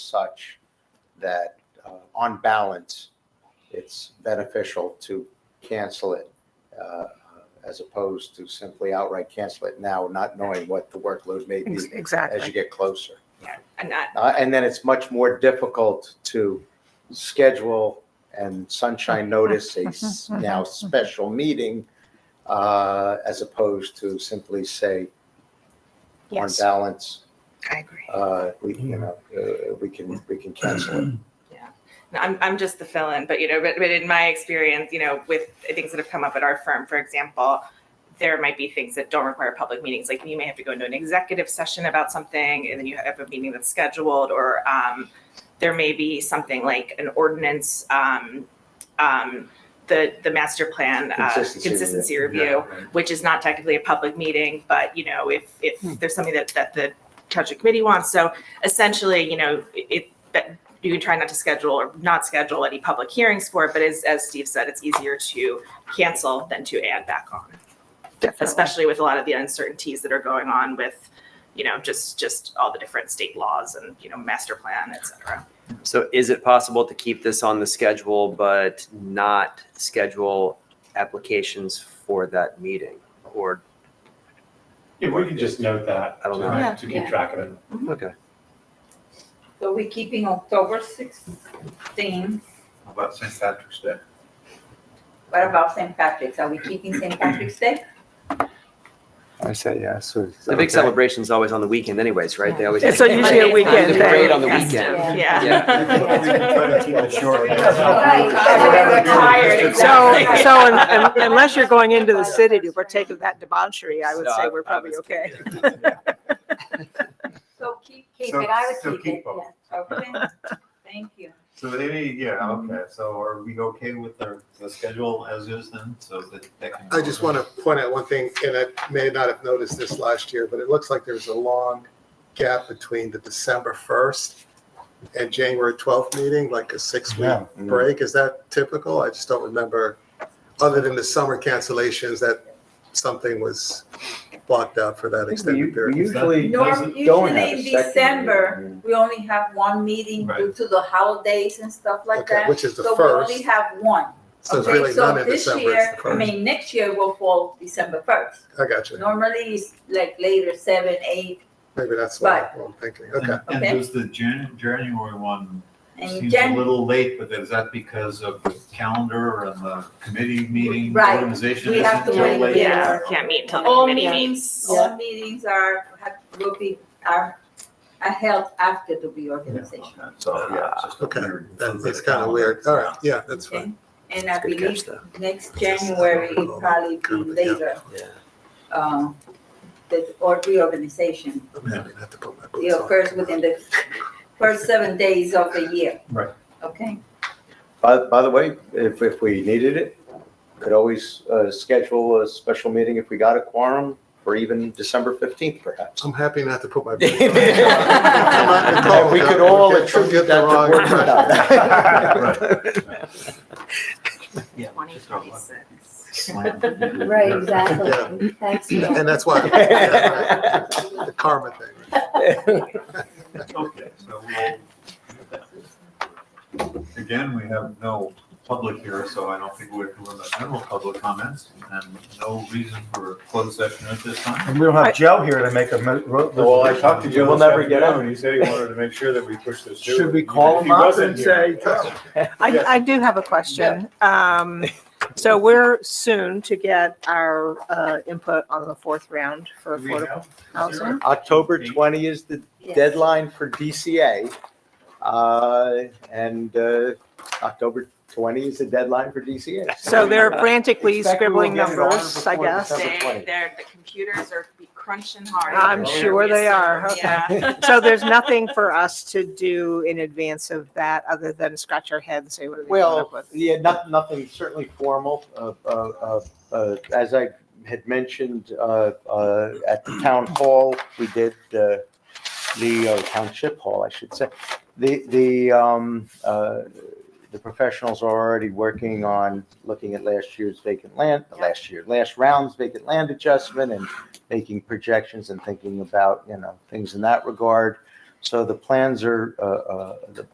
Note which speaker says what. Speaker 1: such that, uh, on balance, it's beneficial to cancel it uh, as opposed to simply outright cancel it now, not knowing what the workload may be
Speaker 2: Ex-
Speaker 1: as you
Speaker 2: Exactly.
Speaker 1: get closer.
Speaker 2: And I,
Speaker 1: Uh, And then it's much more difficult to schedule and sunshine notice a s- now special meeting uh, as opposed to simply say, on
Speaker 2: yes,
Speaker 1: balance,
Speaker 2: I agree.
Speaker 1: uh, we, you know, uh, we can, we can cancel it.
Speaker 3: No, I'm, I'm just the fill-in, but you know, but, but in my experience, you know, with things that have come up at our firm, for example, there might be things that don't require public meetings. Like you may have to go into an executive session about something, and then you have a meeting that's scheduled, or um, there may be something like an ordinance, um, um, the the master plan uh,
Speaker 1: Consistency review.
Speaker 3: consistency review which is not technically a public meeting, but you know, if if
Speaker 1: Hmm.
Speaker 3: there's something that that the township committee wants, so essentially, you know, it that you can try not to schedule or not schedule any public hearings for it, but as as Steve said, it's easier to cancel than to add back on,
Speaker 2: Definitely.
Speaker 3: especially with a lot of the uncertainties that are going on with, you know, just just all the different state laws and you know, master plan, et cetera.
Speaker 4: So is it possible to keep this on the schedule but not schedule applications for that meeting? Or,
Speaker 5: Yeah, we can just note that.
Speaker 4: I don't know.
Speaker 5: to-
Speaker 2: Yeah.
Speaker 5: To keep track of it.
Speaker 4: okay,
Speaker 6: So we're keeping October 16.
Speaker 7: How About St. Patrick's Day.
Speaker 6: What about St. Patrick's? Are we keeping St. Patrick's Day?
Speaker 8: I say yes.
Speaker 4: the big celebration's always on the weekend anyways, right? They always.
Speaker 2: It's so usually a
Speaker 4: The
Speaker 2: weekend
Speaker 4: parade
Speaker 2: thing.
Speaker 4: on the
Speaker 3: Yes.
Speaker 4: weekend.
Speaker 3: We're tired,
Speaker 2: So,
Speaker 3: exactly.
Speaker 2: so un- un- unless you're going into the city to partake of that debauchery, I would
Speaker 4: So
Speaker 2: say
Speaker 4: I-
Speaker 2: we're
Speaker 4: I
Speaker 2: probably
Speaker 4: was-
Speaker 2: okay.
Speaker 6: So keep,
Speaker 7: Keep it, I would So- so keep it, keep both.
Speaker 6: Okay, thank you.
Speaker 7: So any, yeah, okay, so are we okay with the, the schedule as is then, so that that can.
Speaker 9: I just want to point out one thing, and I may not have noticed this last year, but it looks like there's a long gap between the December 1st and January 12th meeting, like a six-week
Speaker 7: Yeah.
Speaker 9: break. Is that typical? I just don't remember, other than the summer cancellations, that something was blocked out for that extended period.
Speaker 7: usually
Speaker 6: Norm, usually in December, we only have one meeting
Speaker 7: Right.
Speaker 6: due to the holidays and stuff like
Speaker 9: Okay,
Speaker 6: that.
Speaker 9: Which is the
Speaker 6: So we only
Speaker 9: first,
Speaker 6: have one.
Speaker 9: so it's
Speaker 6: Okay,
Speaker 9: really
Speaker 6: so
Speaker 9: none in
Speaker 6: this
Speaker 9: December,
Speaker 6: year,
Speaker 9: it's the
Speaker 6: I
Speaker 9: first.
Speaker 6: mean, next year will fall December 1st.
Speaker 9: I got you.
Speaker 6: Normally it's like later, 7, 8,
Speaker 9: Maybe that's what I'm thinking. Okay.
Speaker 7: And- And
Speaker 6: Okay.
Speaker 7: there's the Jan, January one,
Speaker 6: and
Speaker 7: seems a
Speaker 6: Jan,
Speaker 7: little late, but is that because of the calendar and the committee meeting
Speaker 6: Right.
Speaker 7: organization?
Speaker 6: We
Speaker 7: isn't
Speaker 6: have to
Speaker 7: till
Speaker 6: wait,
Speaker 7: late?
Speaker 3: Yeah, can't meet until the
Speaker 2: Oh,
Speaker 6: All
Speaker 3: committee
Speaker 6: meetings-
Speaker 3: meets.
Speaker 6: all meetings are, have- will be, are are held after the reorganization.
Speaker 7: So, yeah, it's just a
Speaker 9: Okay.
Speaker 7: weird-
Speaker 9: That- It's kind of weird. All right, yeah, that's fine.
Speaker 6: Okay, and I
Speaker 4: That's a good
Speaker 6: believe
Speaker 4: catch though.
Speaker 6: next January it'll probably be later,
Speaker 4: Yeah.
Speaker 6: um, the, or reorganization.
Speaker 9: I mean, I didn't have to put my
Speaker 6: It
Speaker 9: boots on.
Speaker 6: occurs within the first seven days of the year.
Speaker 7: Right.
Speaker 6: Okay,
Speaker 1: By, by the way, if, if we needed it, could always uh, schedule a special meeting if we got a quorum for even December 15th perhaps.
Speaker 9: I'm happy not to put my. boots on. I'm not in control,
Speaker 1: We
Speaker 9: Jeff.
Speaker 1: could all
Speaker 9: Don't get- don't
Speaker 1: attribute
Speaker 9: get the
Speaker 1: that
Speaker 9: wrong-
Speaker 1: to work.
Speaker 7: Yeah,
Speaker 3: Twenty
Speaker 7: just don't let-
Speaker 3: twenty-six.
Speaker 7: slam it.
Speaker 10: Right, exactly. Thanks.
Speaker 9: And that's why, yeah, right. the karma thing.
Speaker 7: Okay, so we'll, again, we have no public here, so I don't think we have to limit general public comments and no reason for a closed session at this time.
Speaker 5: And we don't have Joe here to make a. mo- ro-
Speaker 1: Well, I talked to Joe
Speaker 5: We'll
Speaker 1: this
Speaker 5: never get
Speaker 1: afternoon,
Speaker 5: out. He said he wanted to make sure that we push this
Speaker 9: through. If he wasn't here-
Speaker 2: I,
Speaker 5: Yes.
Speaker 2: I do have a question. Um, so we're soon to get our, uh, input on the fourth round for affordable housing.
Speaker 1: October 20 is the
Speaker 6: yes.
Speaker 1: deadline for DCA. uh, And uh, October 20 is the deadline for DCA.
Speaker 2: So they're frantically
Speaker 1: Uh, Expect we will
Speaker 2: scribbling
Speaker 1: get it on
Speaker 2: numbers, I
Speaker 1: before
Speaker 2: guess.
Speaker 1: December.
Speaker 3: They, they're, the computers are be crunching hard.
Speaker 2: I'm
Speaker 1: sure
Speaker 2: they are, okay.
Speaker 3: Yeah.
Speaker 2: So there's nothing for us to do in advance of that, other than scratch our head and say, what are they coming
Speaker 1: Well,
Speaker 2: up with?
Speaker 1: yeah, not, nothing certainly formal. Uh, uh, uh, uh, As I had mentioned, uh, uh, at the town hall, we did uh, the uh, township hall, I should say. The, the, um, uh, the professionals are already working on looking at last year's vacant land,
Speaker 3: Yeah.
Speaker 1: last year, last round's vacant land adjustment and making projections and thinking about, you know, things in that regard. So the plans are, uh, uh, the